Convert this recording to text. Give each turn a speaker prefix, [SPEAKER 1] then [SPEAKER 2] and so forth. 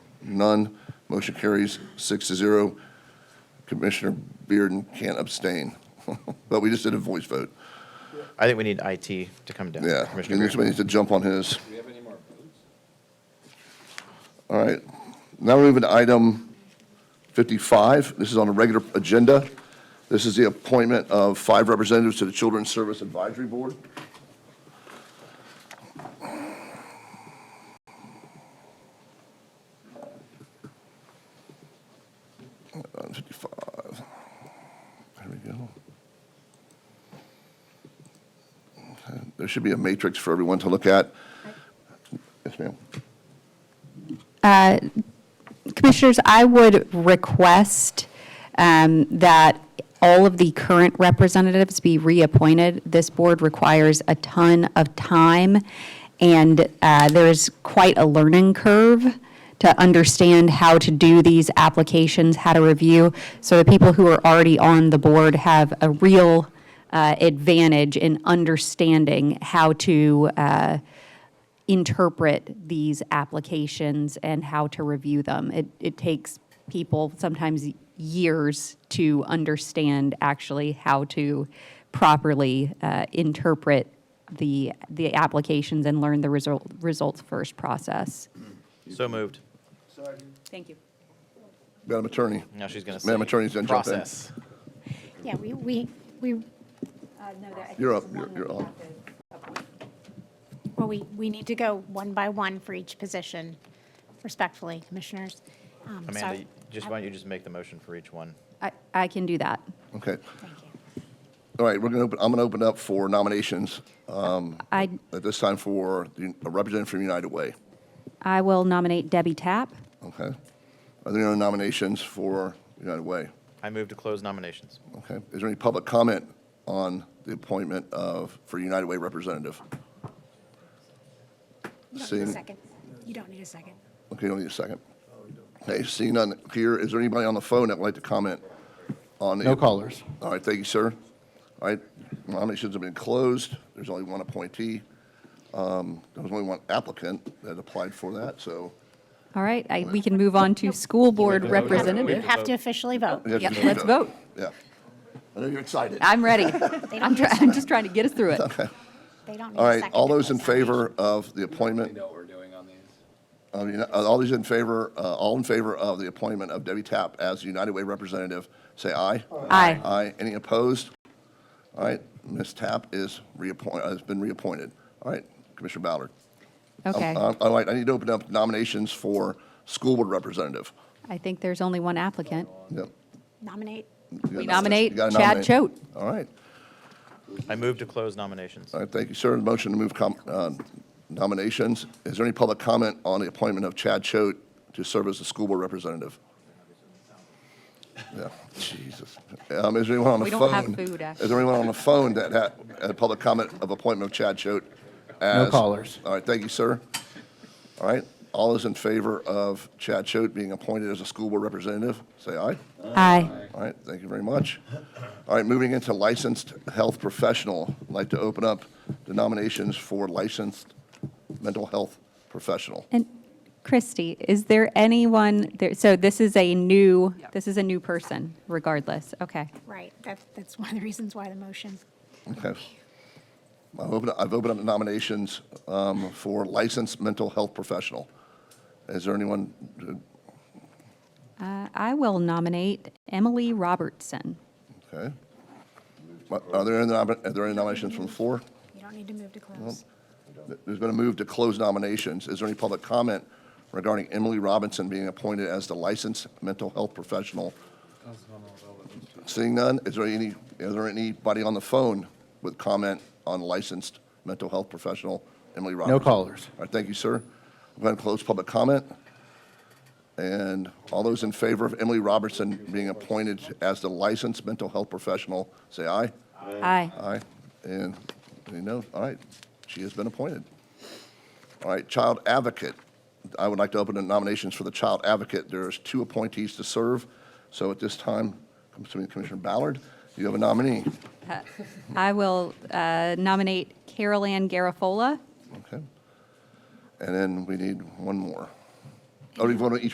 [SPEAKER 1] None. Motion carries six to zero. Commissioner Bearden can't abstain. But we just did a voice vote.
[SPEAKER 2] I think we need IT to come down.
[SPEAKER 1] Yeah.
[SPEAKER 2] Commissioner Beer.
[SPEAKER 1] Somebody needs to jump on his. Do we have any more votes? All right. Now we're moving to item 55. This is on the regular agenda. This is the appointment of five representatives to the Children's Service Advisory Board. Item 55. There we go. There should be a matrix for everyone to look at. Yes, ma'am.
[SPEAKER 3] Commissioners, I would request um, that all of the current representatives be reappointed. This board requires a ton of time, and uh, there's quite a learning curve to understand how to do these applications, how to review. So the people who are already on the board have a real uh, advantage in understanding how to uh, interpret these applications and how to review them. It, it takes people sometimes years to understand actually how to properly uh, interpret the, the applications and learn the result, results first process.
[SPEAKER 2] So moved.
[SPEAKER 3] Thank you.
[SPEAKER 1] Madam Attorney.
[SPEAKER 2] Now she's going to say.
[SPEAKER 1] Madam Attorney's gonna jump in.
[SPEAKER 2] Process.
[SPEAKER 4] Yeah, we, we, we,
[SPEAKER 1] You're up, you're you're on.
[SPEAKER 4] well, we, we need to go one by one for each position, respectfully, commissioners. Um, so I-
[SPEAKER 2] Amanda, just why don't you just make the motion for each one?
[SPEAKER 3] I, I can do that.
[SPEAKER 1] Okay.
[SPEAKER 4] Thank you.
[SPEAKER 1] All right, we're going to, open. I'm going to open up for nominations um,
[SPEAKER 3] I,
[SPEAKER 1] at this time for the- a representative from United Way.
[SPEAKER 3] I will nominate Debbie Tapp.
[SPEAKER 1] Okay? Are there any other nominations for United Way?
[SPEAKER 2] I move to close nominations.
[SPEAKER 1] Okay? Is there any public comment on the appointment of, for United Way representative?
[SPEAKER 4] You don't need a
[SPEAKER 1] Seeing-
[SPEAKER 4] second. You don't need a second.
[SPEAKER 1] Okay, don't need a second. Okay, seeing none here, is there anybody on the phone that would like to comment on? the-
[SPEAKER 5] No callers.
[SPEAKER 1] All right, thank you, sir. All right, nominations have been closed. There's only one appointee. Um, There was only one applicant that applied for that, so.
[SPEAKER 3] All right, I, we can move on to school board
[SPEAKER 4] You
[SPEAKER 3] representative.
[SPEAKER 4] have to officially vote.
[SPEAKER 1] we have to
[SPEAKER 3] Yep,
[SPEAKER 1] do
[SPEAKER 3] let's
[SPEAKER 1] that.
[SPEAKER 3] vote.
[SPEAKER 1] Yeah. I know you're excited.
[SPEAKER 3] I'm ready. I'm try, I'm just trying to get us through it.
[SPEAKER 4] They don't need
[SPEAKER 1] All
[SPEAKER 4] a
[SPEAKER 1] right,
[SPEAKER 4] second.
[SPEAKER 1] all
[SPEAKER 4] to
[SPEAKER 1] those in
[SPEAKER 4] close nominations.
[SPEAKER 1] favor of the appointment,
[SPEAKER 6] know what we're doing on these?
[SPEAKER 1] of the- uh, all those in favor, uh, all in favor of the appointment of Debbie Tapp as United Way representative, say aye.
[SPEAKER 3] Aye.
[SPEAKER 1] Aye. Any opposed? All right, Ms. Tapp is reappoint, uh, has been reappointed. All right, Commissioner Ballard.
[SPEAKER 3] Okay.
[SPEAKER 1] Um, All right, I need to open up nominations for school board representative.
[SPEAKER 3] I think there's only one applicant.
[SPEAKER 1] Yep.
[SPEAKER 4] Nominate,
[SPEAKER 3] We
[SPEAKER 1] You gotta
[SPEAKER 3] nominate
[SPEAKER 1] you gotta
[SPEAKER 3] Chad
[SPEAKER 1] nominate.
[SPEAKER 3] Choate.
[SPEAKER 1] All right,
[SPEAKER 2] I move to close nominations.
[SPEAKER 1] all right, thank you, sir. Motion to move com- uh, nominations. Is there any public comment on the appointment of Chad Choate to serve as the school board representative? Yeah, Jesus. Um, Is there anyone on the
[SPEAKER 3] We
[SPEAKER 1] phone?
[SPEAKER 3] don't have food, actually.
[SPEAKER 1] Is there anyone on the phone that had had a public comment of appointment of Chad Choate? as-
[SPEAKER 5] callers.
[SPEAKER 1] All right, thank you, sir. All right, all those in favor of Chad Choate being appointed as a school board representative, say aye.
[SPEAKER 3] Aye.
[SPEAKER 1] All right, thank you very much. All right, moving into licensed health professional, I'd like to open up the nominations for licensed mental health professional.
[SPEAKER 3] And Christy, is there anyone there, so this is a new, this is a new person regardless, okay.
[SPEAKER 4] right, that, that's one of the reasons why the motion.
[SPEAKER 1] Okay. I've opened, I've opened up the nominations um, for licensed mental health professional. Is there anyone,
[SPEAKER 3] Uh, I will nominate Emily Robertson.
[SPEAKER 1] okay? Are there any, nom- are there any nominations from the floor?
[SPEAKER 4] You don't need to move to close.
[SPEAKER 1] There's been a move to close nominations. Is there any public comment regarding Emily Robinson being appointed as the licensed mental health professional? Seeing none, is there any, is there anybody on the phone with comment on licensed mental health professional Emily Robinson?
[SPEAKER 5] No callers.
[SPEAKER 1] All right, thank you, sir. I'm going to close public comment. And all those in favor of Emily Robertson being appointed as the licensed mental health professional, say aye.
[SPEAKER 3] Aye.
[SPEAKER 1] Aye, and, you know, all right, she has been appointed. All right, Child Advocate. I would like to open the nominations for the Child Advocate. There's two appointees to serve, so at this time, comes to me, Commissioner Ballard, you have a nominee.
[SPEAKER 3] I will uh, nominate Carol Ann Garofola.
[SPEAKER 1] Okay. And then we need one more. Oh, do you want each